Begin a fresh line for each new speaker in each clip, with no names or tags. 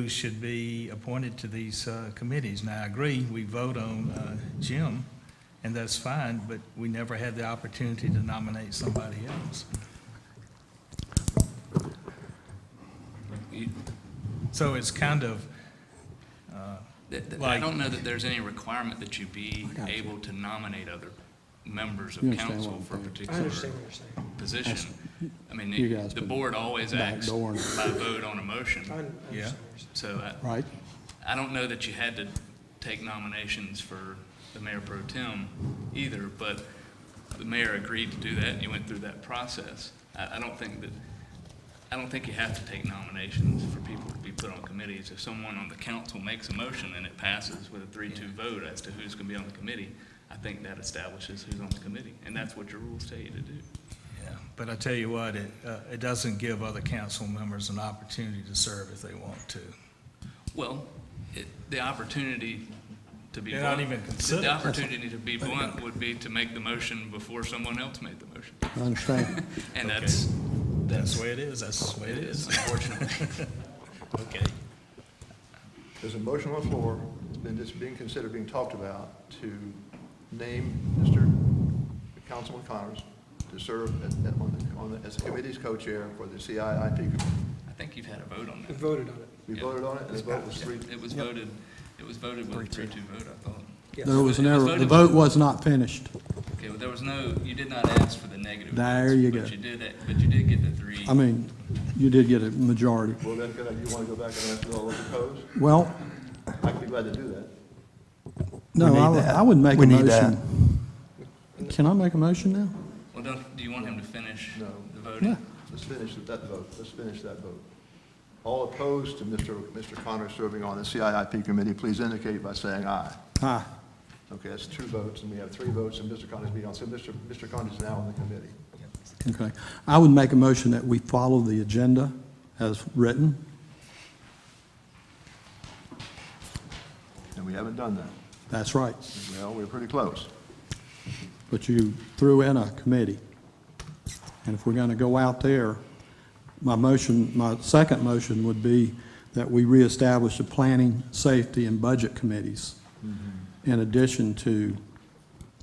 who should be appointed to these uh, committees. Now, I agree, we vote on uh, Jim, and that's fine, but we never had the opportunity to nominate somebody else.
You-
So it's kind of,
th- th- I
Like-
don't know that there's any requirement that you be
got you.
able to nominate other members
You
of
understand
council
what I'm
for a
saying.
particular
I understand what you're saying.
position. I mean,
You guys
it- the
been
board always acts by
backdooring it.
vote on a motion,
I un- I
Yeah.
understand what you're saying.
so uh, I,
right?
I don't know that you had to take nominations for the mayor pro tem either, but the mayor agreed to do that, and you went through that process. I, I don't think that, I don't think you have to take nominations for people to be put on committees. If someone on the council makes a motion and it passes with a three-two vote as to who's gonna be on the committee, I think that establishes who's on the committee, and that's what your rules tell you to do.
yeah, but I tell you what, it, uh, it doesn't give other council members an opportunity to serve if they want to.
Well, it, the opportunity to be
They're not
blunt.
even considered.
The opportunity to be blunt would be to make the motion before someone else made the motion.
I understand.
And that's,
That's the way it is, that's the way
it
it
is,
is.
unfortunately.
Okay.
There's a motion on the floor, and it's being considered, being talked about, to name Mr. Councilman Connors to serve as- on the- on the, as the committee's co-chair for the CIIP. committee.
I think you've had a vote on
We
that.
voted on it.
We
Yeah.
voted on it, and the vote was three.
It was voted, it was voted with a three-two vote, I thought.
Yes.
There was an
It was
error, the
voted-
vote was not finished.
Okay, well, there was no, you did not ask for the negative.
There
votes,
you go.
But you did, that- but you did get the three.
I mean, you did get a majority.
Well, then, could I- you want to go back and ask all those opposed?
Well,
I'd be glad to do that.
no,
need
I would-
that.
I would make a
We need that.
motion. Can I make a motion now?
Well, don't, do you want him to finish
No.
the voting?
Let's finish that vote, let's finish that vote. All opposed to Mr. Mr. Connors serving on the CIIP committee, please indicate by saying aye.
Aye.
Okay, that's two votes, and we have three votes, and Mr. Connors being on, so Mr. Mr. Connors is now on the committee.
Okay. I would make a motion that we follow the agenda as written.
And we haven't done that.
That's right.
Well, we're pretty close.
But you threw in a committee. And if we're going to go out there, my motion, my second motion would be that we reestablish the planning, safety, and budget committees in addition to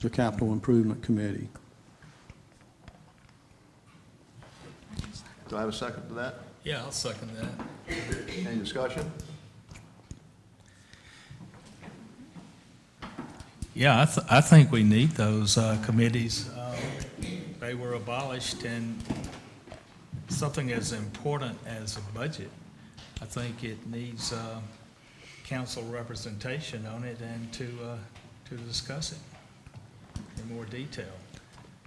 the capital improvement committee.
Do I have a second to that?
Yeah, I'll second that.
Any discussion?
Yeah, I, th- I think we need those uh, committees. Uh, They were abolished, and something as important as a budget, I think it needs uh, council representation on it and to, uh, to discuss it in more detail,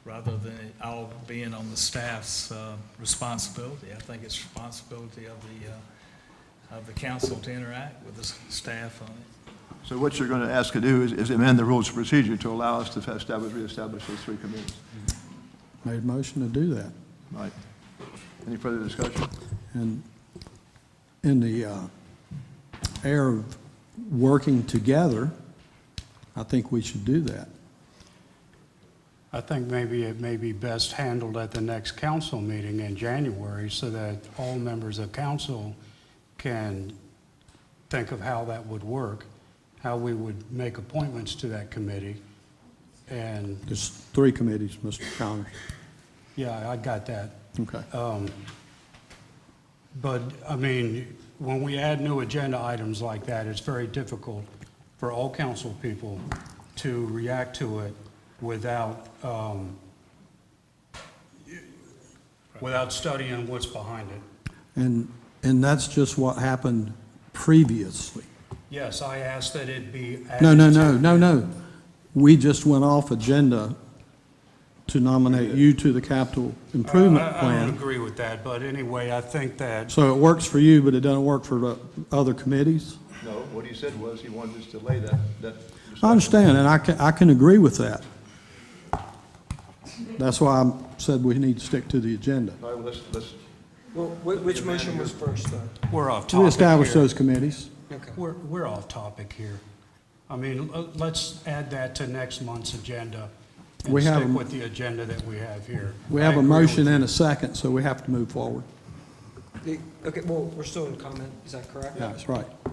rather than it all being on the staff's uh, responsibility. I think it's responsibility of the, uh, of the council to interact with the s- staff on it.
So what you're going to ask to do is- is amend the rules of procedure to allow us to establish, reestablish those three committees.
Made a motion to do that.
Right. Any further discussion?
And in the uh, air of working together, I think we should do that.
I think maybe it may be best handled at the next council meeting in January so that all members of council can think of how that would work, how we would make appointments to that committee. And,
There's three committees, Mr. Connors.
yeah, I got that.
Okay.
But, I mean, when we add new agenda items like that, it's very difficult for all council people to react to it without, um, without studying what's behind it.
And, and that's just what happened previously.
Yes, I asked that it be added.
No, no, no,
to-
no, no. We just went off agenda to nominate you to the capital improvement
Uh, I- I don't
plan.
agree with that, but anyway, I think that,
So it works for you, but it doesn't work for the other committees?
No, what he said was he wanted us to delay that, that. discussion.
I understand, and I can, I can agree with that. That's why I said we need to stick to the agenda.
All right, well, let's, let's,
Well, wh- which motion was first, though?
we're off topic
To establish
here.
those committees.
Okay.
We're, we're off topic here. I mean, l- let's add that to next month's agenda
We
and
have a
stick
m-
with the agenda that we have here.
We
I
have a
agree with
motion
you.
and a second, so we have to move forward.
The- Okay, well, we're still in comment, is that correct?
Yeah, that's right.